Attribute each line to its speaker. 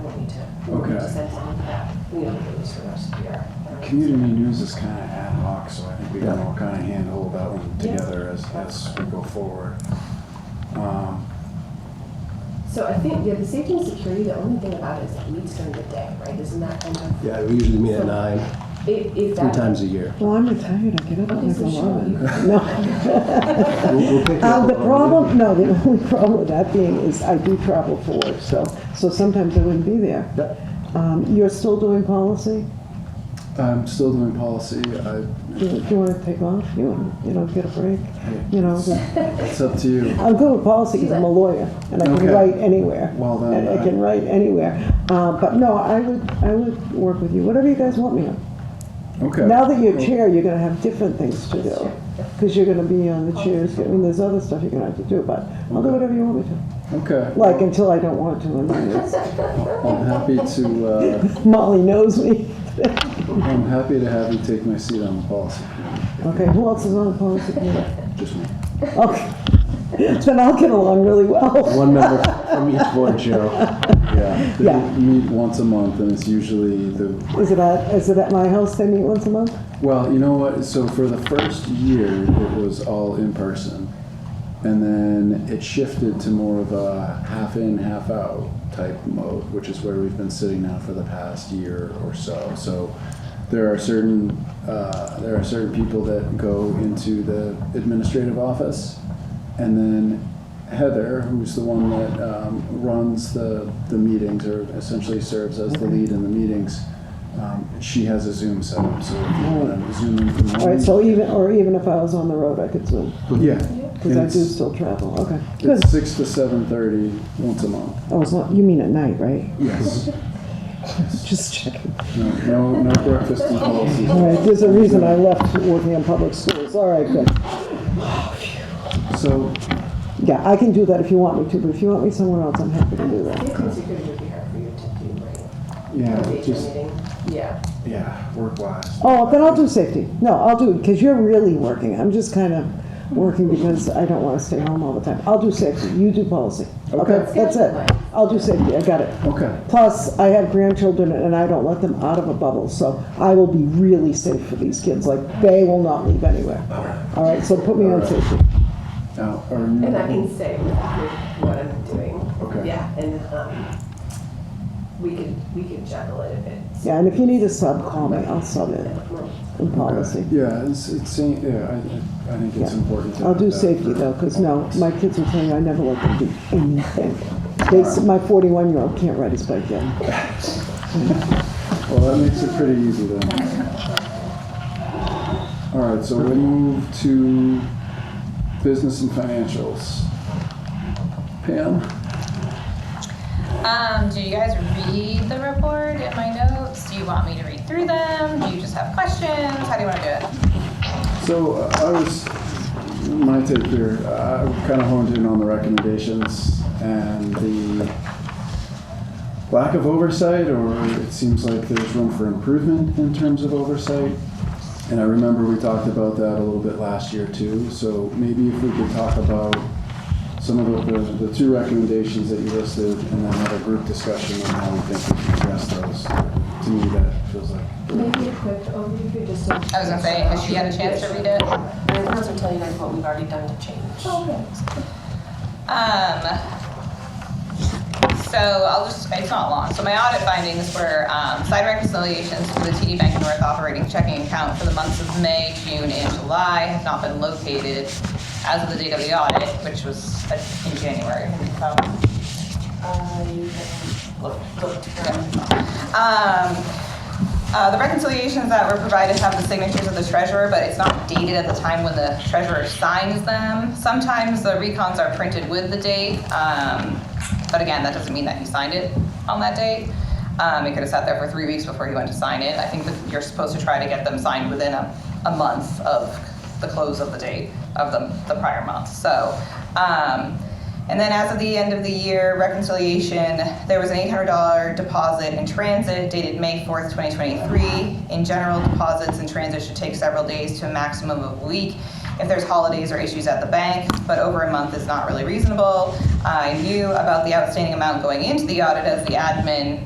Speaker 1: we don't do this the rest of the year.
Speaker 2: Community news is kind of ad hoc, so I think we can
Speaker 3: Yeah.
Speaker 2: all kind of handhold that one
Speaker 1: Yeah.
Speaker 2: together as, as we go forward. Um,
Speaker 1: So I think, yeah, the safety and security, the only thing about it is it meets during the day, right? Isn't that kind of,
Speaker 3: Yeah, we usually meet at nine,
Speaker 1: if, if
Speaker 3: three
Speaker 1: that.
Speaker 3: times a year.
Speaker 4: Well, I'm retired, I get up at
Speaker 1: Okay,
Speaker 4: like
Speaker 1: so Sean,
Speaker 4: eleven.
Speaker 1: you-
Speaker 4: No.
Speaker 3: We'll- we'll pick you up
Speaker 4: Uh, the
Speaker 3: on-
Speaker 4: problem, no, the only problem with that being is I do travel for work, so, so sometimes I wouldn't be there.
Speaker 3: Yep.
Speaker 4: Um, you're still doing policy?
Speaker 2: I'm still doing policy, I,
Speaker 4: Do you- do you wanna take off? You wanna, you know, get a break? You know, the-
Speaker 2: it's up to you.
Speaker 4: I'm good with policy because I'm a lawyer and I can
Speaker 2: Okay.
Speaker 4: write anywhere.
Speaker 2: Well, then
Speaker 4: And I
Speaker 2: I-
Speaker 4: can write anywhere. Uh, but no, I would, I would work with you, whatever you guys want me on.
Speaker 2: Okay.
Speaker 4: Now that you're chair, you're gonna have different things to do, because you're gonna be on the chairs, I mean, there's other stuff you're gonna have to do, but I'll do whatever you want me to.
Speaker 2: Okay.
Speaker 4: Like, until I don't want to, and then it's-
Speaker 2: I'm happy to, uh,
Speaker 4: Molly knows me.
Speaker 2: I'm happy to have you take my seat on the policy committee,
Speaker 4: Okay, who else is on the policy committee?
Speaker 2: just me.
Speaker 4: Okay, then I'll get along really well.
Speaker 3: One member from each board, Cheryl.
Speaker 2: Yeah.
Speaker 4: Yeah.
Speaker 2: They meet once a month and it's usually the
Speaker 4: Is it at, is it at my house they meet once a month?
Speaker 2: Well, you know what? So for the first year, it was all in person, and then it shifted to more of a half in, half out type mode, which is where we've been sitting now for the past year or so. So there are certain uh, there are certain people that go into the administrative office, and then Heather, who's the one that um, runs the, the meetings or essentially serves as the lead in the meetings, um, she has a Zoom set up. So if you want to Zoom in from
Speaker 4: All
Speaker 2: home,
Speaker 4: right, so even, or even if I was on the road, I could zoom,
Speaker 2: yeah,
Speaker 4: because I
Speaker 2: And
Speaker 4: do
Speaker 2: it's,
Speaker 4: still travel, okay. Good,
Speaker 2: it's six to seven thirty once a month.
Speaker 4: oh, it's not, you mean at night, right?
Speaker 2: Yes.
Speaker 4: Just checking.
Speaker 2: No, no, no breakfast and policies.
Speaker 4: All right, there's a reason I left working in public schools, all right, good.
Speaker 2: So
Speaker 4: Yeah, I can do that if you want me to, but if you want me somewhere else, I'm happy to do that.
Speaker 1: Safety and security would be hard for you to do, right?
Speaker 2: yeah,
Speaker 1: Major
Speaker 2: just
Speaker 1: meeting. Yeah.
Speaker 2: yeah, work wise.
Speaker 4: Oh, then I'll do safety. No, I'll do, because you're really working. I'm just kind of working because I don't want to stay home all the time. I'll do safety. You do policy.
Speaker 2: Okay.
Speaker 4: That's it. I'll do safety. I got it.
Speaker 2: Okay.
Speaker 4: Plus, I have grandchildren and I don't let them out of a bubble, so I will be really safe for these kids. Like, they will not leave anywhere. All right, so put me on safety.
Speaker 2: Now, are
Speaker 1: And I
Speaker 2: you,
Speaker 1: can say with what I'm doing.
Speaker 2: Okay.
Speaker 1: Yeah, and, um, we could, we could juggle it a bit.
Speaker 4: Yeah, and if you need a sub, call me. I'll sub it in policy.
Speaker 2: yeah, it's, it's yeah. I- I, I think it's
Speaker 4: Yeah.
Speaker 2: important. To
Speaker 4: I'll
Speaker 2: have
Speaker 4: do
Speaker 2: that.
Speaker 4: safety though, because no, my kids will tell you I never let them do anything. They, s- my 41-year-old can't ride his bike yet.
Speaker 2: Well, that makes it pretty easy then. All right, so we'll move to business and financials. Pam?
Speaker 5: Um, do you guys read the report in my notes? Do you want me to read through them? Do you just have questions? How do you want to do it?
Speaker 2: So uh, I was, my take here, uh, I kind of honed in on the recommendations and the lack of oversight, or it seems like there's room for improvement in terms of oversight. And I remember we talked about that a little bit last year too, so maybe if we could talk about some of the, the, the two recommendations that you listed and then have a group discussion on how we think we can address those. To me, that feels like.
Speaker 1: Maybe a quick overview, just so.
Speaker 5: I was gonna say, has she had a chance to read it? Oh,
Speaker 6: And I can also tell you guys what we've already done to change.
Speaker 5: Um, so I'll just, it's not long. So my audit findings were, um, side reconciliations for the TD Bank North operating checking account for the months of May, June, and July have not been located as of the date of the audit, which was uh, in January. Um,
Speaker 6: I looked, looked for
Speaker 5: Um, uh, the reconciliations that were provided have the signatures of the treasurer, but it's not dated at the time when the treasurer signs them. Sometimes the recons are printed with the date, um, but again, that doesn't mean that he signed it on that date. Um, it could have sat there for three weeks before he went to sign it. I think that you're supposed to try to get them signed within a, a month of the close of the date of the, the prior month. So, um, and then as of the end of the year reconciliation, there was an $800 deposit in transit dated May 4th, 2023. In general, deposits in transit should take several days to a maximum of a week if there's holidays or issues at the bank, but over a month is not really reasonable. I knew about the outstanding amount going into the audit as the admin